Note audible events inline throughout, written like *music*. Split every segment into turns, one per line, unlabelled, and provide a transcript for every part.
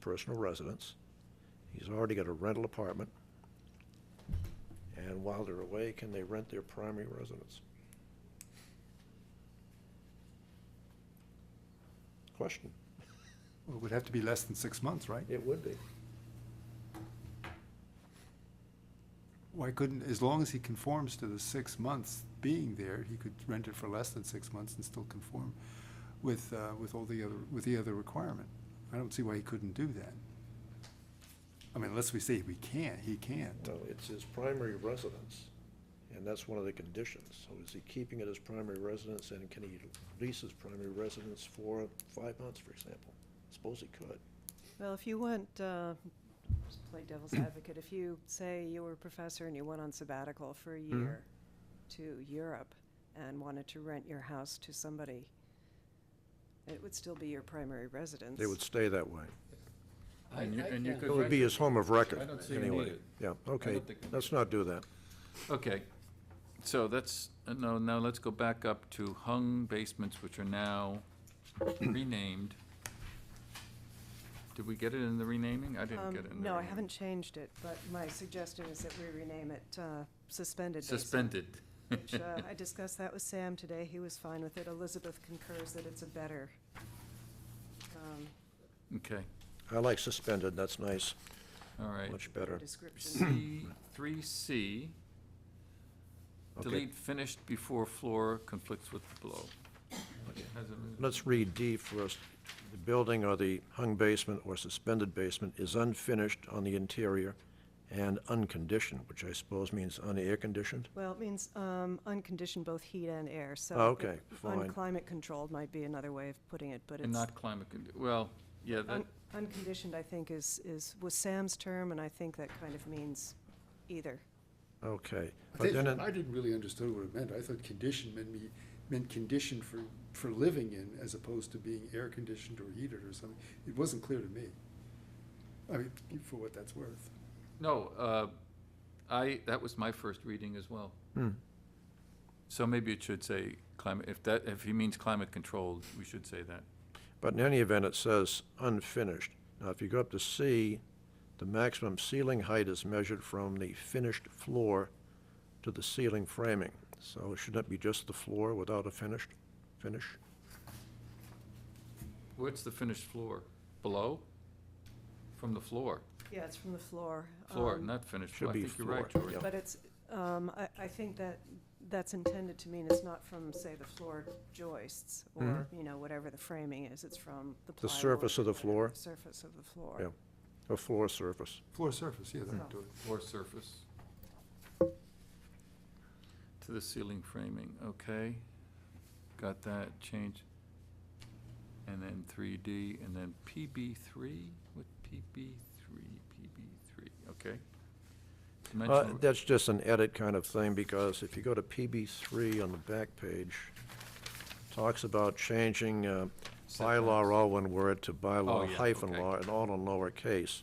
personal residence. He's already got a rental apartment. And while they're away, can they rent their primary residence? Question.
Well, It would have to be less than six months, right?
It would be.
Why couldn't, as long as he conforms to the six months being there, he could rent it for less than six months and still conform with, uh, with all the other, with the other requirement. I don't see why he couldn't do that. I mean, unless we say we can't, he can't.
No, it's his primary residence, and that's one of the conditions. So is he keeping it as primary residence, and can he lease his primary residence for five months, for example? Suppose he could.
Well, if you went, uh, just play
*clears throat*
devil's advocate, if you say you were a professor and you went on sabbatical for a
Mm-hmm.
year to Europe and wanted to rent your house to somebody, it would still be your primary residence.
They would stay that way.
I-
And you-
I
and you
can't-
could
It would be his home of record,
I don't see you need
anyway.
it.
Yeah, okay,
don't think we need
let's not do that.
Okay, so that's, uh, no, now let's go back up to hung basements, which are now renamed. Did we get it in the renaming? I didn't
Um,
get it in the renaming.
No, I haven't changed it, but my suggestion is that we rename it uh, suspended basement.
Suspended.
*laughs*
which, uh, I discussed that with Sam today. He was fine with it. Elizabeth concurs that it's a better. um,
*laughs* Okay,
I like suspended, that's nice,
all right.
much better.
Description.
C, three C,
Okay.
delete finished before floor conflicts with below. Has it-
Let's read D first. The building or the hung basement or suspended basement is unfinished on the interior and unconditioned, which I suppose means unair-conditioned?
Well, it means um, unconditioned both heat and air, so.
Oh, okay, fine.
Unclimate controlled might be another way of putting it, but
And
it's,
not climate, condi- well, yeah, that,
un- unconditioned, I think, is, is, was Sam's term, and I think that kind of means either.
Okay.
I
But then, it-
didn't really understand what it meant. I thought condition meant me, meant condition for, for living in as opposed to being air-conditioned or heated or something. It wasn't clear to me. I mean, for what that's worth.
No, uh, I, that was my first reading as well.
Hmm.
So maybe it should say climate, if that, if he means climate controlled, we should say that.
but in any event, it says unfinished. Now, if you go up to C, the maximum ceiling height is measured from the finished floor to the ceiling framing. So shouldn't it be just the floor without a finished, finish?
What's the finished floor? Below? From the floor?
Yeah, it's from the floor.
Floor,
um,
not finished
Should
floor.
be
I think you're right,
floor,
George.
yeah.
But it's, um, I, I think that, that's intended to mean it's not from, say, the floor joists or, you know, whatever the framing is, it's from the
Mm-hmm. The
plywood.
surface of the
whatever
floor?
Surface of the floor.
Yeah. A floor surface.
Floor surface, yeah, that would do it.
Floor surface. To the ceiling framing, okay. Got that, change. And then three D, and then PB three, with PB three, PB three, okay.
Uh,
Dimensional-
That's just an edit kind of thing, because if you go to PB three on the back page, talks about changing uh, bylaw,
Setbacks. Oh,
all one word, to bylaw
yeah,
hyphen
okay.
law, and all in lowercase.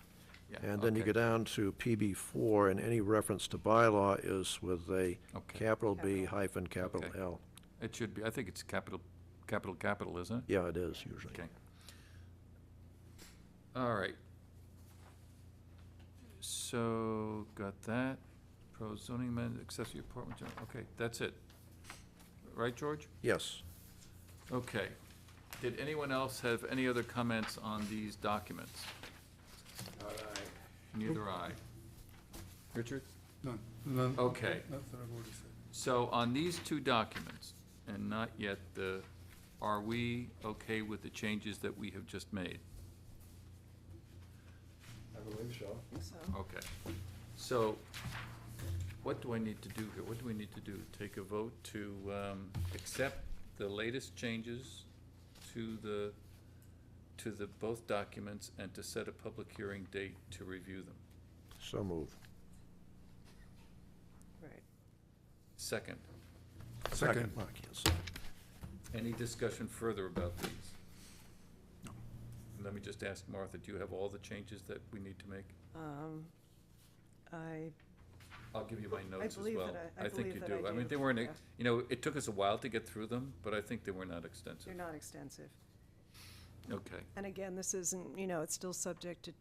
Yeah,
And then you
okay.
go down to PB four, and any reference to bylaw is with a
Okay.
capital B
Capital.
hyphen capital
Okay.
L.
It should be, I think it's capital, capital, capital, isn't it?
Yeah, it is usually.
Okay. All right. So, got that, pro zoning amendment, accessory apartment, gen- okay, that's it. Right, George?
Yes.
Okay. Did anyone else have any other comments on these documents? Neither I. Richard?
None, none.
Okay.
Not that I've already said.
So on these two documents, and not yet the, are we okay with the changes that we have just made?
I believe so.
I think so.
Okay. So what do I need to do here? What do we need to do? Take a vote to um, accept the latest changes to the, to the both documents and to set a public hearing date to review them?
So move.
Right.
Second,
Second.
Well, I can't say.
any discussion further about these? No. Let me just ask Martha, do you have all the changes that we need to make?
Um, I,
I'll give you my notes as well.
believe that I- I
think
believe
you
that
do.
I
I mean,
do,
they weren't, ex-
yeah.
you know, it took us a while to get through them, but I think they were not extensive.
they're not extensive.
Okay.
And again, this isn't, you know, it's still subject to